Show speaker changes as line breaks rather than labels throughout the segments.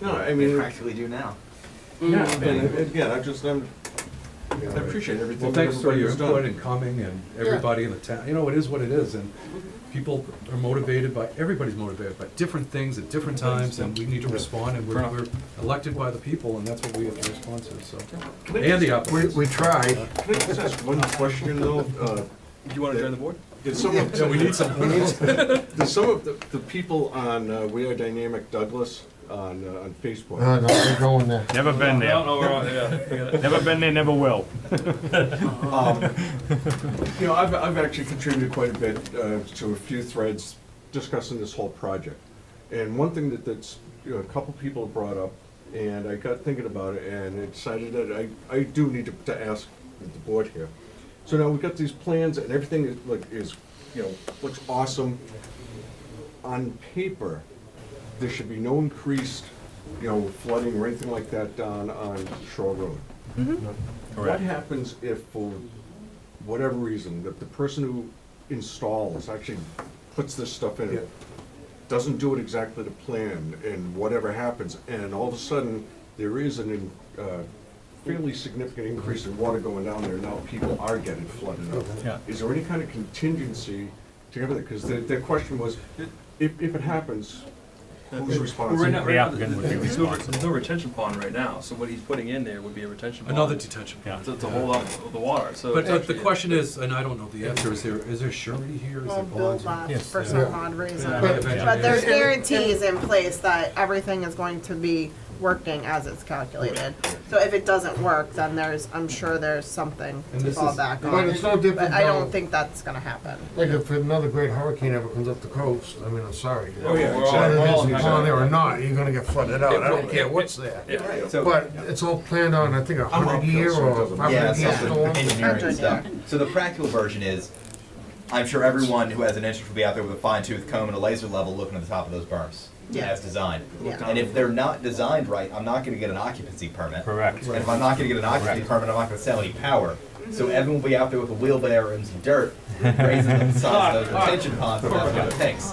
No, I
They
mean,
practically do now.
yeah, and again, I just, I'm, I appreciate
Well,
everything that
thanks for
everybody
your
has
input and
done.
coming and everybody in the town, you know, it is what it is, and people are motivated by, everybody's motivated by different things at different times, and we need to respond, and we're, we're elected by the people, and that's what we have to respond to, so. And the
We,
applicants.
we tried.
Can I just ask one question though? Uh,
Do you want to join the board?
Did some of,
Yeah, we need some,
did some of the, the people on uh, We Are Dynamic Douglas on, uh, on Facebook?
No, no, we're going there.
Never been there.
no, we're on, yeah.
Never been there, never will.
Um, You know, I've, I've actually contributed quite a bit uh, to a few threads discussing this whole project. And one thing that, that's, you know, a couple people brought up, and I got thinking about it, and I decided that I, I do need to, to ask the board here. So now we've got these plans and everything is, like, is, you know, looks awesome. On paper, there should be no increased, you know, flooding or anything like that down on Shore Road. What
Mm-hmm. Correct.
happens if, for whatever reason, that the person who installs, actually puts this stuff in, it, doesn't do it exactly to plan, and whatever happens, and all of a sudden, there is an, in- uh, fairly significant increase in water going down there, now people are getting flooded up.
Yeah.
Is there any kind of contingency to everything? Because the, the question was, if, if it happens, who's
Well,
responsible?
right now,
The
right now,
applicant would be
there's no-
responsible.
there's no retention pond right now, so what he's putting in there would be a retention pond.
another detention pond.
To, to hold up the water, so.
But uh, the
actually-
question is, and I don't know the answer, is there, is there surety here, is there
Well, Bill
bonds?
left
Yes.
for some odd reason.
Yeah,
But
eventually
but there's
there is.
guarantees in place that everything is going to be working as it's calculated. So if it doesn't work, then there's, I'm sure there's something
And
to
this
fall
is-
back on.
But it's no different
But I
though,
don't think that's gonna happen.
like if another great hurricane ever comes up the coast, I mean, I'm sorry.
Oh, yeah, we're all-
Whether
we're all-
it's on there or not, you're gonna get flooded out. I don't care what's there.
Yeah.
But it's all planned on, I think, a
I'm up
hundred year
there, so it
or
doesn't
five
Yeah,
hundred year
something
storm.
engineering
Engineer.
stuff. So the practical version is, I'm sure everyone who has an interest will be out there with a fine tooth comb and a laser level looking at the top of those berms
Yeah.
as designed.
Yeah.
And if they're not designed right, I'm not gonna get an occupancy permit.
Correct.
And if I'm not gonna get an occupancy permit, I'm not gonna sell any power. So
Mm-hmm.
Evan will be out there with a wheelbarrow and some dirt, raising the size of those retention ponds and that's what it
Oh,
takes.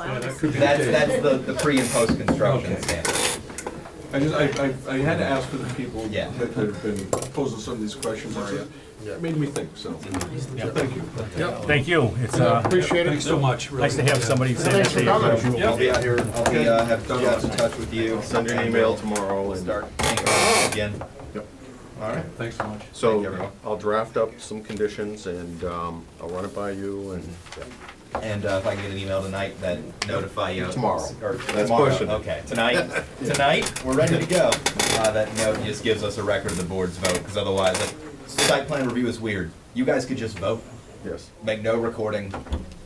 That's, that's the, the pre and post construction
Okay.
standard.
I just, I, I, I had to ask for the people
Yeah.
that have been posing some of these questions, it made me think, so, thank you.
Thank you. It's,
I
uh,
Appreciate
Thanks
it.
so much, really.
nice to have somebody say that
Thanks for
they
coming.
approve.
I'll be out here, I'll be, uh, have Jeff in touch with you.
Send an
uh,
email tomorrow
We'll
and,
start thinking about it again.
Yep.
All right.
Thanks so much.
Thank you, everyone.
so I'll draft up some conditions and um, I'll run it by you and,
And uh, if I can get an email tonight that notify you.
Tomorrow.
Or
That's
tomorrow,
pushing it.
okay. Tonight, tonight, we're ready to go. Uh, That note just gives us a record of the board's vote, because otherwise, uh, site plan review is weird. You guys could just vote,
yes.
make no recording,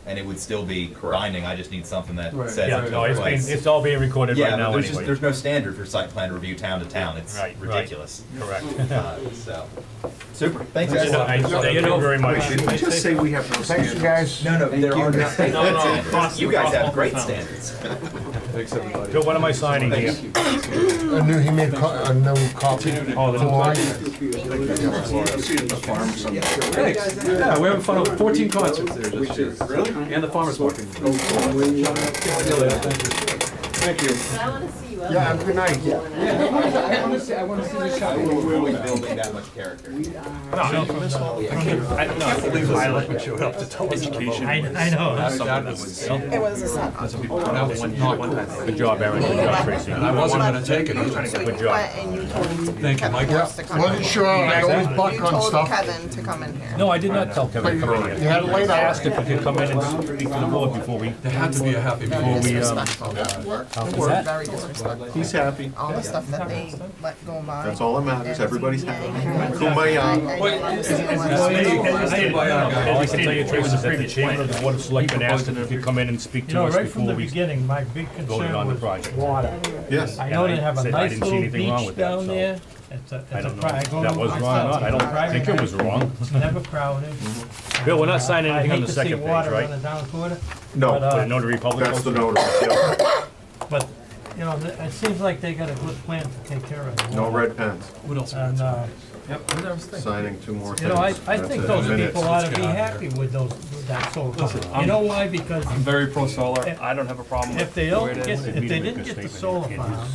and it would still be binding. I just need something that
Right.
says
Yeah,
it
no,
took
it's
place.
been, it's all being recorded
Yeah,
right
but
now
there's just,
anyway.
there's no standard for site plan review town to town. It's
Right, right.
ridiculous.
Correct.
Uh, So, super. Thanks,
Just a
guys.
nice- Thank you very much.
Just say we have no
Thanks, you guys.
No, no, there are no
No, no,
standards. You guys have great
Awesome.
standards.
Thanks, everybody.
Bill, what am I signing here?
I knew he made co- a new copy.
Oh, the-
Why?
Thanks. Yeah, we're having fun with fourteen concerts there this year.
Really?
And the farmer's market.
Thank
I
you.
wanna see you.
Yeah, good night.
We're always building that much character.
I can't believe Violet showed up to tell us. I, I know. That's something that was.
It was a set.
That was not cool.
Good job, Aaron. Good job, Tracy.
And I wasn't gonna take it.
So you
Good job.
went and you told
Thank you, Mike.
Kevin Morris to come in.
Wasn't sure, I always
You
buck on
told
stuff.
Kevin to come in here.
No, I did not tell Kevin to come in
You
here.
had it laid
I
out.
asked if we could come in and speak to the board before we.
There had to be a happy
Very
meeting.
disrespectful, that work,
that?
very disrespectful.
He's happy.
All the stuff that they let go by.
That's all that matters. Everybody's happy. Kumbaya.
All I can tell you, Tracy, is that the chairman of the board of selectmen asked if we could come in and speak
You
to
know,
us
right from
before
the
we.
beginning, my big
voted on
concern
the
was
project.
water.
Yes.
I know
And I
they have a
said I
nice
didn't see
little
anything wrong
beach
with that,
down
so
there. It's a,
I
it's a
don't know
pri- I
if
go
that was
myself.
wrong or not. I don't think it Mhm. was wrong.
It's never crowded.
Bill, we're not signing anything on the second
I hate to see
page,
water on the
right?
down quarter, but,
No,
For the
uh,
notary public.
that's the notice. yeah.
but, you know, th- it seems like they got a good plan to take care of it.
No red pens.
What else?
And, uh,
Signing two more things.
you know, I, I
That's
think
it.
those
Minutes.
people ought to be
get out of
happy with those, with that solar farm.
I'm-
You know why? Because
I'm very pro solar, I don't have a problem with.
if they
the way
don't
it
get,
is.
if they didn't get the solar farm,